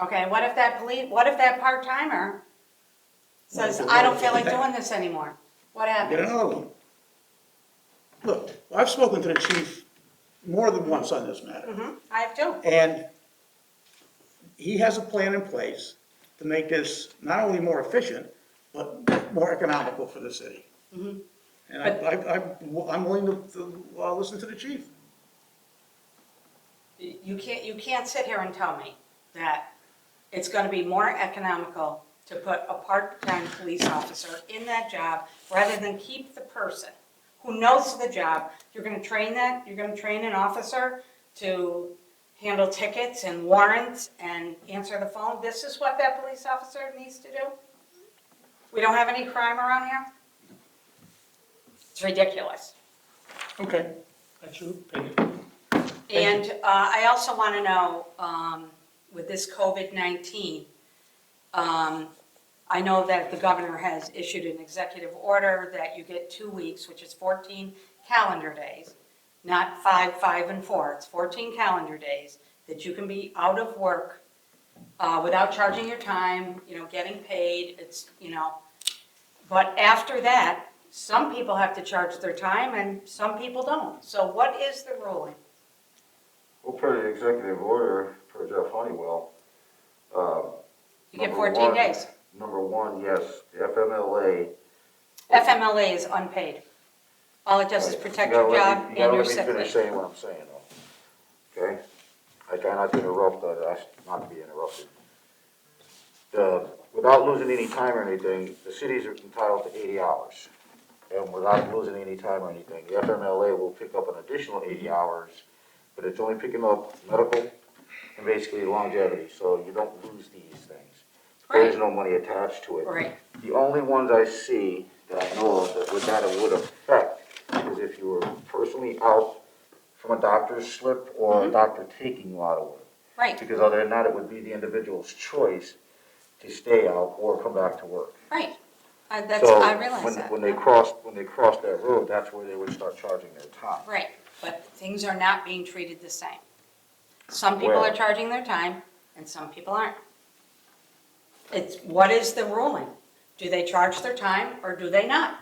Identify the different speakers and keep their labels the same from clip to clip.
Speaker 1: Okay, what if that police, what if that part-timer says,
Speaker 2: Well,
Speaker 1: I don't feel
Speaker 2: what
Speaker 1: like
Speaker 2: if-
Speaker 1: doing this anymore? What
Speaker 2: Get
Speaker 1: happens?
Speaker 2: another one. Look, I've spoken to the chief more than once on this matter,
Speaker 1: Mhm, I have two.
Speaker 2: and he has a plan in place to make this not only more efficient, but more economical for the city. And I, I, I'm- I'm willing to- to, uh listen to the chief.
Speaker 1: You can't, you can't sit here and tell me that it's gonna be more economical to put a part-time police officer in that job rather than keep the person who knows the job. You're gonna train that, you're gonna train an officer to handle tickets and warrants and answer the phone. This is what that police officer needs to do? We don't have any crime around here? It's ridiculous.
Speaker 2: Okay.
Speaker 3: That's your opinion.
Speaker 1: And uh, I also want to know, um, with this COVID-19, um, I know that the governor has issued an executive order that you get two weeks, which is 14 calendar days, not five, five, and four. It's 14 calendar days that you can be out of work uh, without charging your time, you know, getting paid, it's, you know. But after that, some people have to charge their time and some people don't. So what is the ruling?
Speaker 4: We'll put an executive order for Jeff Honeywell. Uh,
Speaker 1: You get
Speaker 4: number
Speaker 1: 14
Speaker 4: one-
Speaker 1: days.
Speaker 4: Number one, yes, the FMLA.
Speaker 1: FMLA is unpaid. All it does is protect your
Speaker 4: You gotta let
Speaker 1: job
Speaker 4: me-
Speaker 1: and your
Speaker 4: You
Speaker 1: sick
Speaker 4: gotta let me finish
Speaker 1: leave.
Speaker 4: saying what I'm saying, though, okay? I try not to interrupt, I ask not to be interrupted. The- Without losing any time or anything, the cities are entitled to eighty hours. And without losing any time or anything, the FMLA will pick up an additional eighty hours, but it's only picking up medical and basically longevity, so you don't lose these things. There is
Speaker 1: Right.
Speaker 4: no money attached to it.
Speaker 1: Right.
Speaker 4: The only ones I see that I know of that would, that it would affect is if you were personally out from a doctor's slip or a doctor taking you out of work.
Speaker 1: Mm-hmm. Right,
Speaker 4: Because other than that, it would be the individual's choice to stay out or come back to work.
Speaker 1: right. I- That's,
Speaker 4: So
Speaker 1: I realize
Speaker 4: when-
Speaker 1: that.
Speaker 4: When they cross, when they cross that road, that's where they would start charging their time.
Speaker 1: Right, but things are not being treated the same. Some people are
Speaker 4: Well-
Speaker 1: charging their time and some people aren't. It's, what is the ruling? Do they charge their time or do they not?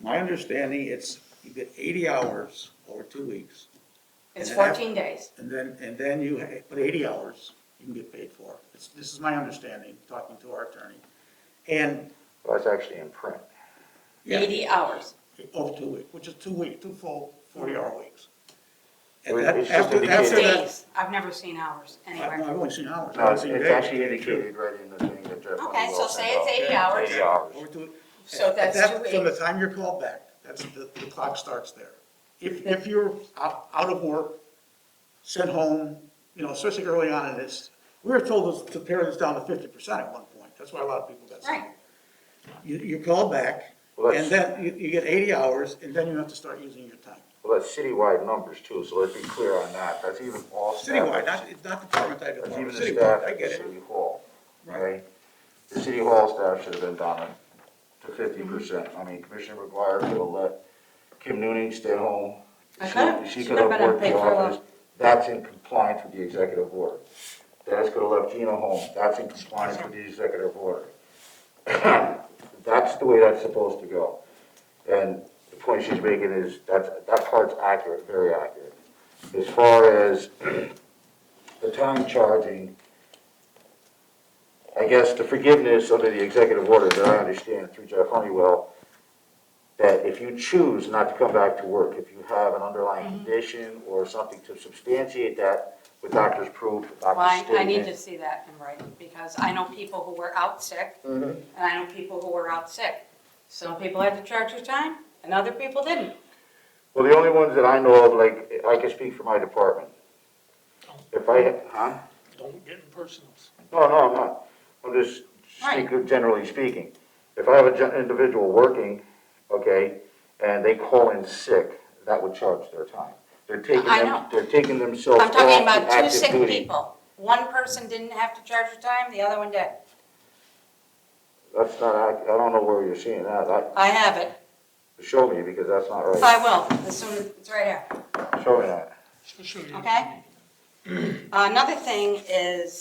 Speaker 2: My understanding, it's, you get eighty hours over two weeks,
Speaker 1: It's
Speaker 2: And then
Speaker 1: 14 days.
Speaker 2: and then, and then you, ha- but eighty hours you can get paid for. It's- This is my understanding, talking to our attorney. And,
Speaker 4: That's actually in print.
Speaker 2: yeah.
Speaker 1: 80 hours.
Speaker 2: Over two weeks, which is two week, two full forty-hour weeks.
Speaker 4: It
Speaker 2: And
Speaker 4: was-
Speaker 2: that-
Speaker 4: it's just
Speaker 2: after, after
Speaker 4: indicated.
Speaker 2: that,
Speaker 1: Days. I've never seen hours
Speaker 2: I- no,
Speaker 1: anywhere.
Speaker 2: I've only seen hours. I've
Speaker 4: No,
Speaker 2: only
Speaker 4: it's
Speaker 2: seen
Speaker 4: it's
Speaker 2: days.
Speaker 4: actually indicated right in the thing that Jeff Honeywell.
Speaker 1: Okay, so say it's
Speaker 4: sent
Speaker 1: 80
Speaker 4: out.
Speaker 1: hours.
Speaker 4: Eighty hours.
Speaker 2: Over two-
Speaker 1: So that's
Speaker 2: that-
Speaker 1: two
Speaker 2: From the
Speaker 1: weeks.
Speaker 2: time you're called back, that's, the, the clock starts there. If, if you're out, out of work, sent home, you know, especially early on in this, we were told to pare this down to fifty percent at one point, that's why a lot of people got sick.
Speaker 1: Right.
Speaker 2: You, you're called back,
Speaker 4: Well,
Speaker 2: and then you, you get eighty hours, and then you have to start using your time.
Speaker 4: Well, that's citywide numbers too, so let's be clear on that. That's even all staff.
Speaker 2: Citywide, not, not department by
Speaker 4: That's even
Speaker 2: department,
Speaker 4: the staff
Speaker 2: citywide, I
Speaker 4: at the
Speaker 2: get it.
Speaker 4: city hall,
Speaker 2: Right.
Speaker 4: right? The city hall staff should have been down to fifty percent. I mean, Commissioner McGuire could have let Kim Noonan stay home.
Speaker 1: I
Speaker 4: She-
Speaker 1: could've. She
Speaker 4: She
Speaker 1: could've
Speaker 4: could have
Speaker 1: been
Speaker 4: worked
Speaker 1: unpaid
Speaker 4: the
Speaker 1: for a
Speaker 4: office. That's in compliance with the executive order. Dennis could have left Gina home. That's in compliance with the executive order. That's the way that's supposed to go. And the point she's making is, that's, that part's accurate, very accurate. As far as the time charging, I guess the forgiveness under the executive order that I understand through Jeff Honeywell, that if you choose not to come back to work, if you have an underlying
Speaker 1: Mm-hmm.
Speaker 4: condition or something to substantiate that with doctor's proof,
Speaker 1: Well,
Speaker 4: doctor's
Speaker 1: I, I
Speaker 4: statement.
Speaker 1: need to see that in writing, because I know people who were out sick,
Speaker 4: Mm-hmm.
Speaker 1: and I know people who were out sick. Some people had to charge their time, and other people didn't.
Speaker 4: Well, the only ones that I know of, like, I can speak for my department. If I, huh?
Speaker 3: Don't get in personals.
Speaker 4: No, no, I'm not. I'm just speaking, generally speaking. If I have an individual working, okay, and they call in sick, that would charge their time. They're taking
Speaker 1: I
Speaker 4: them,
Speaker 1: know.
Speaker 4: they're taking themselves
Speaker 1: I'm
Speaker 4: off
Speaker 1: talking
Speaker 4: the
Speaker 1: about two
Speaker 4: active
Speaker 1: sick
Speaker 4: duty.
Speaker 1: people. One person didn't have to charge their time, the other one did.
Speaker 4: That's not, ac- I don't know where you're seeing that. That,
Speaker 1: I have it.
Speaker 4: show me, because that's not
Speaker 1: I
Speaker 4: right.
Speaker 1: will, as soon as, it's right here.
Speaker 4: Show me that.
Speaker 3: So, so you-
Speaker 1: Okay. Another thing is,